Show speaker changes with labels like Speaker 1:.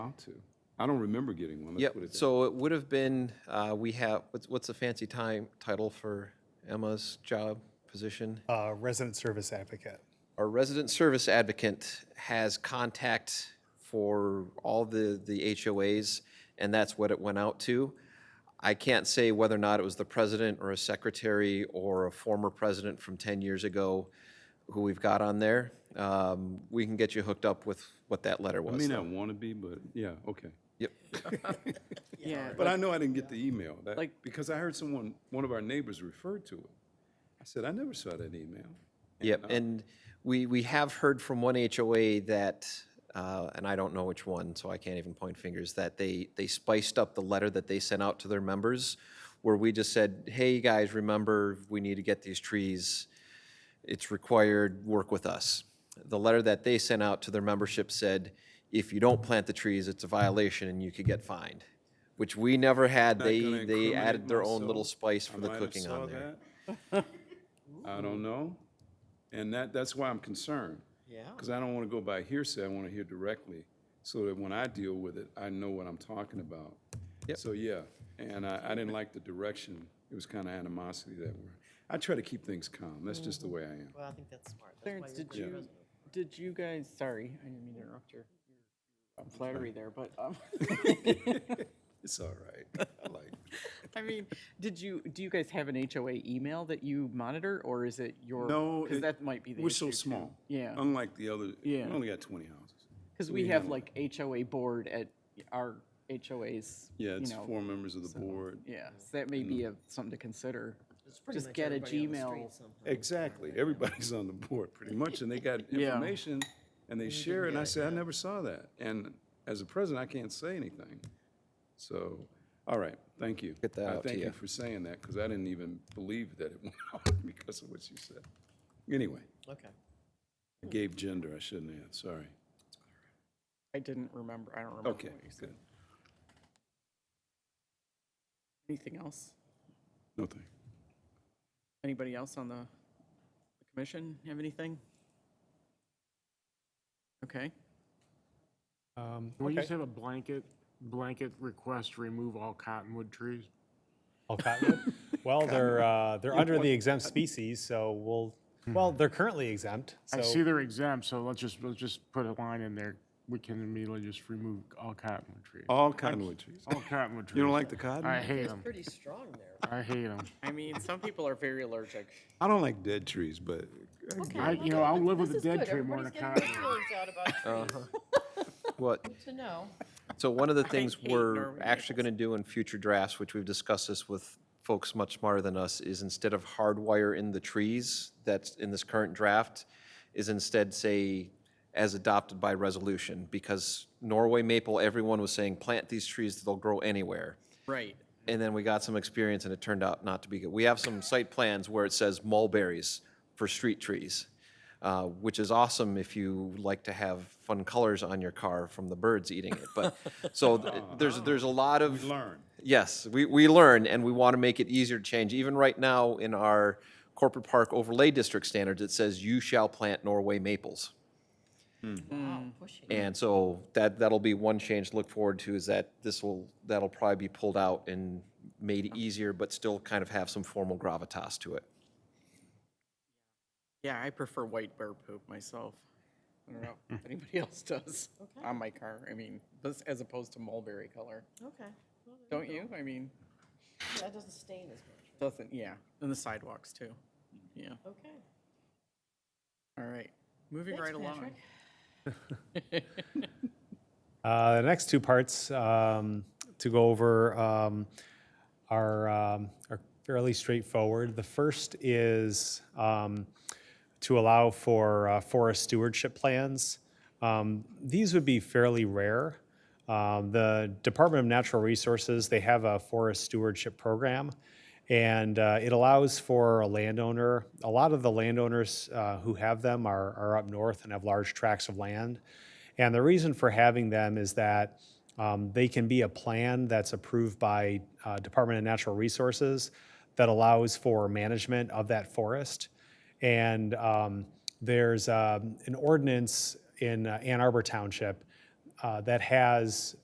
Speaker 1: allowed to. I don't remember getting one. That's
Speaker 2: Yep,
Speaker 1: what it-
Speaker 2: so it would have been, uh, we have, what's, what's the fancy time, title for Emma's job position?
Speaker 3: uh, resident service advocate.
Speaker 2: Our resident service advocate has contact for all the, the HOAs, and that's what it went out to. I can't say whether or not it was the president or a secretary or a former president from 10 years ago who we've got on there. Um, We can get you hooked up with what that letter
Speaker 1: I
Speaker 2: was.
Speaker 1: may
Speaker 2: though.
Speaker 1: not want to be, but yeah, okay.
Speaker 2: Yep.
Speaker 4: Yeah,
Speaker 1: But I know I didn't get the email, that,
Speaker 4: Like-
Speaker 1: because I heard someone, one of our neighbors referred to it. I said, I never saw that email.
Speaker 2: Yep, and we, we have heard from one HOA that, uh, and I don't know which one, so I can't even point fingers, that they, they spiced up the letter that they sent out to their members, where we just said, hey, you guys, remember, we need to get these trees. It's required, work with us. The letter that they sent out to their membership said, if you don't plant the trees, it's a violation and you could get fined, which we never had.
Speaker 1: Not gonna
Speaker 2: They, they added
Speaker 1: incriminate
Speaker 2: their own
Speaker 1: myself.
Speaker 2: little spice
Speaker 1: I
Speaker 2: for the
Speaker 1: might have
Speaker 2: cooking
Speaker 1: saw
Speaker 2: on there.
Speaker 1: that. I don't know. And that, that's why I'm concerned. Yeah. Because I don't want to go by hearsay, I want to hear directly, so that when I deal with it, I know what I'm talking about.
Speaker 2: Yep.
Speaker 1: So, yeah, and I, I didn't like the direction, it was kind of animosity that we're, I try to keep things calm, that's just the way I am.
Speaker 5: Well, I think that's smart. That's why
Speaker 4: Clarence,
Speaker 5: you're
Speaker 4: did
Speaker 5: pretty
Speaker 4: you,
Speaker 5: reasonable.
Speaker 4: did you guys, sorry, I didn't mean to interrupt your your flattery there, but, um,
Speaker 1: It's all right, I like it.
Speaker 4: I mean, did you, do you guys have an HOA email that you monitor, or is it your?
Speaker 1: No, it-
Speaker 4: Because that might be the issue.
Speaker 1: We're so small.
Speaker 4: Yeah.
Speaker 1: Unlike the other, we
Speaker 4: Yeah.
Speaker 1: only got twenty houses.
Speaker 4: Because we have like HOA board at our HOAs,
Speaker 1: Yeah,
Speaker 4: you
Speaker 1: it's Mm.
Speaker 4: know,
Speaker 1: four members of the board.
Speaker 4: yeah, so that may be a- something to consider.
Speaker 5: It's pretty
Speaker 4: Just
Speaker 5: much
Speaker 4: get a
Speaker 5: everybody on the street
Speaker 4: Gmail.
Speaker 5: somehow.
Speaker 1: Exactly, everybody's on the board pretty much, and they got
Speaker 4: Yeah.
Speaker 1: information and they share it, and I said, I never saw that. And as a president, I can't say anything. So, all right, thank you.
Speaker 2: Get that
Speaker 1: I
Speaker 2: out to
Speaker 1: Thank you
Speaker 2: you.
Speaker 1: for saying that, because I didn't even believe that it went out because of what you said. Anyway,
Speaker 5: Okay.
Speaker 1: I gave gender, I shouldn't have, sorry.
Speaker 4: I didn't remember, I don't remember what
Speaker 1: Okay,
Speaker 4: you said.
Speaker 1: good,
Speaker 4: Anything else?
Speaker 1: no thank.
Speaker 4: Anybody else on the the commission have anything? Okay.
Speaker 6: Um, Can we just have a blanket, blanket request, to remove all cottonwood trees?
Speaker 7: All cottonwood? Oh, Well, they're, uh, they're under the exempt species, so we'll, well, they're currently exempt, so.
Speaker 6: Hmm. I see they're exempt, so let's just, let's just put a line in there. We can immediately just remove all cottonwood trees.
Speaker 1: All cottonwood trees.
Speaker 6: All cottonwood trees.
Speaker 1: Oh. You don't like the cotton?
Speaker 6: I hate them.
Speaker 5: Pretty strong there.
Speaker 6: I hate them.
Speaker 4: I mean, some people are very allergic.
Speaker 1: I don't like dead trees, but
Speaker 6: I, you know, I'll live with a dead tree more than a cottonwood.
Speaker 2: What,
Speaker 5: To know.
Speaker 2: So one of the things
Speaker 4: hate
Speaker 2: we're
Speaker 4: Norwegian
Speaker 2: actually going to do in future drafts, which we've discussed this with folks much smarter than us, is instead of hardwire in the trees that's in this current draft, is instead say, as adopted by resolution, because Norway maple, everyone was saying, plant these trees, they'll grow anywhere.
Speaker 4: Right.
Speaker 2: And then we got some experience and it turned out not to be good. We have some site plans where it says mulberries for street trees, uh, which is awesome if you like to have fun colors on your car from the birds eating it. But, so th- there's, there's a lot of.
Speaker 1: learn.
Speaker 2: Yes, we, we learn and we want to make it easier to change. Even right now in our corporate park overlay district standards, it says you shall plant Norway maples.
Speaker 5: Wow, pushy.
Speaker 2: And so that, that'll be one change to look forward to is that this will, that'll probably be pulled out and made easier, but still kind of have some formal gravitas to it.
Speaker 4: Yeah, I prefer white bear poop myself. I don't know if anybody else does on my car. I mean, this, as opposed to mulberry color.
Speaker 5: Okay. Well,
Speaker 4: Don't you? I mean,
Speaker 5: That doesn't stain as much.
Speaker 4: doesn't, yeah. And the sidewalks too. Yeah.
Speaker 5: Okay.
Speaker 4: All right. Moving
Speaker 5: Thanks,
Speaker 4: right along.
Speaker 5: Patrick.
Speaker 7: Uh, the next two parts um, to go over um, are, um, are fairly straightforward. The first is um, to allow for uh, forest stewardship plans. Um, these would be fairly rare. Um, the Department of Natural Resources they have a forest stewardship program, and uh, it allows for a landowner. A lot of the landowners uh, who have them are, are up north and have large tracts of land. And the reason for having them is that um, they can be a plan that's approved by uh, Department of Natural Resources that allows for management of that forest. And um, there's um, an ordinance in uh, Ann Arbor Township uh, that has